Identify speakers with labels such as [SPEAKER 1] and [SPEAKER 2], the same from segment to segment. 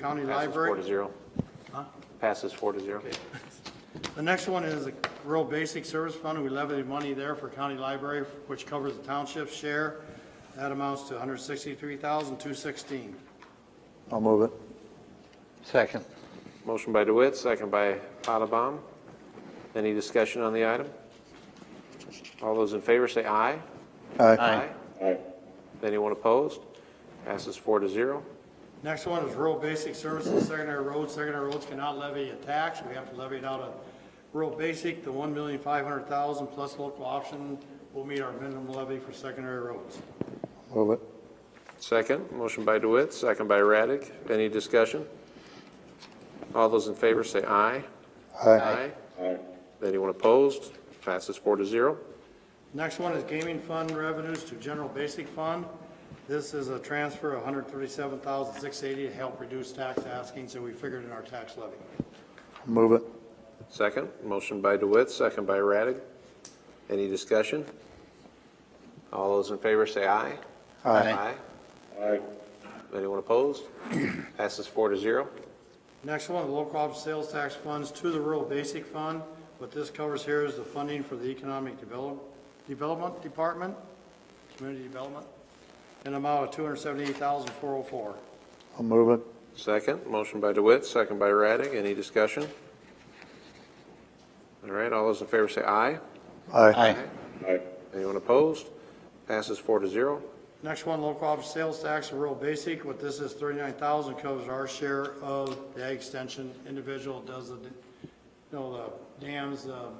[SPEAKER 1] County
[SPEAKER 2] Passes four
[SPEAKER 1] Library.
[SPEAKER 2] to zero. Passes four to zero.
[SPEAKER 1] The next one is a rural basic service fund. We levied money there for county library, which covers the township's share. That amounts to 163,216.
[SPEAKER 3] I'll move it.
[SPEAKER 4] Second.
[SPEAKER 2] Motion by DeWitt, second by Potabom. Any discussion on the item? All those in favor say aye.
[SPEAKER 3] Aye.
[SPEAKER 4] Aye.
[SPEAKER 2] Aye. Anyone opposed? Passes four to zero.
[SPEAKER 1] Next one is rural basic services, secondary roads. Secondary roads cannot levy a tax. We have to levy it out of rural basic, the 1,500,000 plus local option will meet our minimum levy for secondary roads.
[SPEAKER 3] Move it.
[SPEAKER 2] Second, motion by DeWitt, second by Raddick. Any discussion? All those in favor say aye.
[SPEAKER 3] Aye.
[SPEAKER 2] Aye. Anyone opposed? Passes four to zero.
[SPEAKER 1] Next one is gaming fund revenues to general basic fund. This is a transfer of 137,680 to help reduce tax asking, so we figured in our tax levy.
[SPEAKER 3] Move it.
[SPEAKER 2] Second, motion by DeWitt, second by Raddick. Any discussion? All those in favor say aye.
[SPEAKER 4] Aye.
[SPEAKER 2] Aye. Anyone opposed? Passes four to zero.
[SPEAKER 1] Next one, local option sales tax funds to the rural basic fund. What this covers here is the funding for the economic develop, development department, community development, an amount of 278,404.
[SPEAKER 3] I'll move it.
[SPEAKER 2] Second, motion by DeWitt, second by Raddick. Any discussion? All right, all those in favor say aye.
[SPEAKER 3] Aye.
[SPEAKER 2] Aye. Anyone opposed? Passes four to zero.
[SPEAKER 1] Next one, local option sales tax, rural basic, what this is, thirty-nine thousand covers our share of the ag extension individual does the, you know, the dams, um,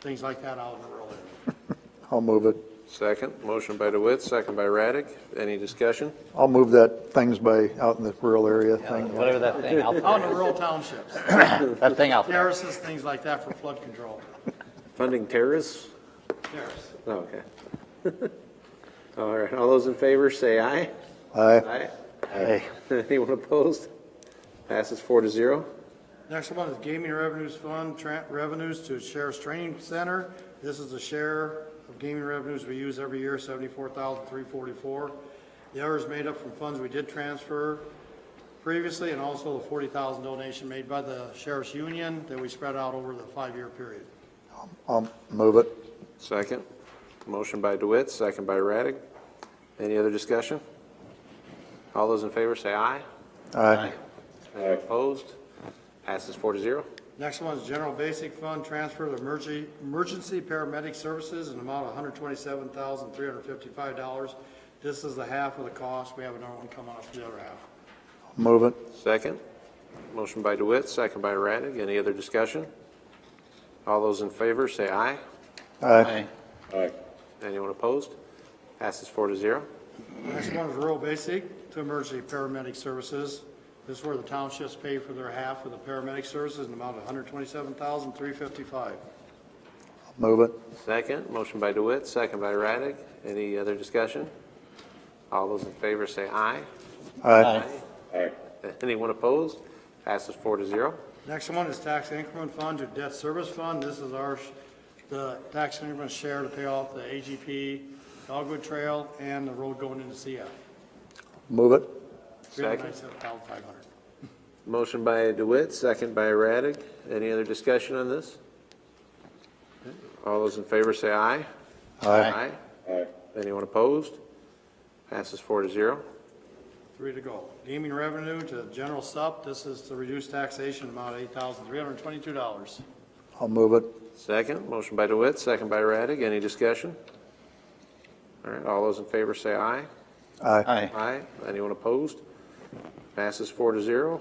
[SPEAKER 1] things like that out in the rural area.
[SPEAKER 3] I'll move it.
[SPEAKER 2] Second, motion by DeWitt, second by Raddick. Any discussion?
[SPEAKER 3] I'll move that things by out in the rural area thing.
[SPEAKER 4] Whatever that thing out
[SPEAKER 1] Out in the
[SPEAKER 4] there,
[SPEAKER 1] rural townships,
[SPEAKER 4] is. that thing out there.
[SPEAKER 1] terraces, things like that for flood control,
[SPEAKER 2] Funding terrorists?
[SPEAKER 1] terrace.
[SPEAKER 2] Oh, Okay. All right, all those in favor say aye.
[SPEAKER 3] Aye.
[SPEAKER 2] Aye.
[SPEAKER 4] Aye.
[SPEAKER 2] Anyone opposed? Passes four to zero.
[SPEAKER 1] Next one is gaming revenues fund, tra- revenues to Sheriff's Training Center. This is the share of gaming revenues we use every year, seventy-four thousand, three forty-four. The other is made up from funds we did transfer previously, and also the forty thousand donation made by the Sheriff's Union that we spread out over the five-year period.
[SPEAKER 3] I'll move it.
[SPEAKER 2] Second. Motion by DeWitt, second by Raddick. Any other discussion? All those in favor say aye.
[SPEAKER 3] Aye.
[SPEAKER 2] Aye. Opposed? Passes four to zero.
[SPEAKER 1] Next one is general basic fund, transfer to emergency, emergency paramedic services, an amount of hundred twenty-seven thousand, three hundred fifty-five dollars. This is the half of the cost. We have another one coming up for the other half.
[SPEAKER 3] Move it.
[SPEAKER 2] Second. Motion by DeWitt, second by Raddick. Any other discussion? All those in favor say aye.
[SPEAKER 3] Aye.
[SPEAKER 4] Aye.
[SPEAKER 2] Aye. Anyone opposed? Passes four to zero.
[SPEAKER 1] Next one is rural basic to emergency paramedic services. This is where the townships pay for their half of the paramedic services in the amount of $127,355.
[SPEAKER 3] Move it.
[SPEAKER 2] Second, motion by DeWitt, second by Raddick. Any other discussion? All those in favor say aye.
[SPEAKER 3] Aye.
[SPEAKER 2] Aye. Anyone opposed? Passes four to zero.
[SPEAKER 1] Next one is tax increment fund to debt service fund. This is our, sh- the tax increment share to pay off the AGP, Dogwood Trail, and the road going into CF.
[SPEAKER 3] Move it.
[SPEAKER 2] Second.
[SPEAKER 1] $397,500.
[SPEAKER 2] Motion by DeWitt, second by Raddick. Any other discussion on this? All those in favor say aye.
[SPEAKER 3] Aye.
[SPEAKER 2] Aye. Anyone opposed? Passes four to zero.
[SPEAKER 1] Three to go. Gaming revenue to general sup. This is to reduce taxation amount of $8,322.
[SPEAKER 3] I'll move it.
[SPEAKER 2] Second, motion by DeWitt, second by Raddick. Any discussion? All right, all those in favor say aye.
[SPEAKER 3] Aye.
[SPEAKER 4] Aye.
[SPEAKER 2] Aye. Anyone opposed? Passes four to zero.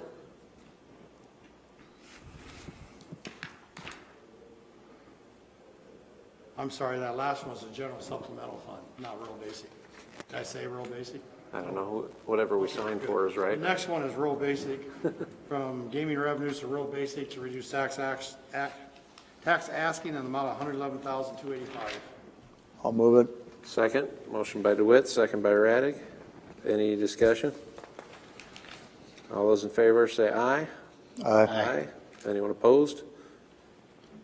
[SPEAKER 1] I'm sorry, that last one's the general supplemental fund, not rural basic. Did I say rural basic?
[SPEAKER 2] I don't know, who- whatever we signed for is
[SPEAKER 1] The
[SPEAKER 2] right.
[SPEAKER 1] next one is rural basic, from gaming revenues to rural basic to reduce tax ax, ac- tax asking in the amount of hundred eleven thousand, two eighty-five.
[SPEAKER 3] I'll move it.
[SPEAKER 2] Second, motion by DeWitt, second by Raddick. Any discussion? All those in favor say aye.
[SPEAKER 3] Aye.
[SPEAKER 2] Anyone opposed?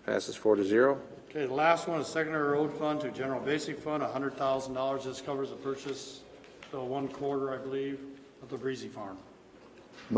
[SPEAKER 2] Passes four to zero.
[SPEAKER 1] Okay, the last one is secondary road fund to general basic fund, hundred thousand dollars. This covers the purchase, the one quarter, I believe, of the Breezy Farm.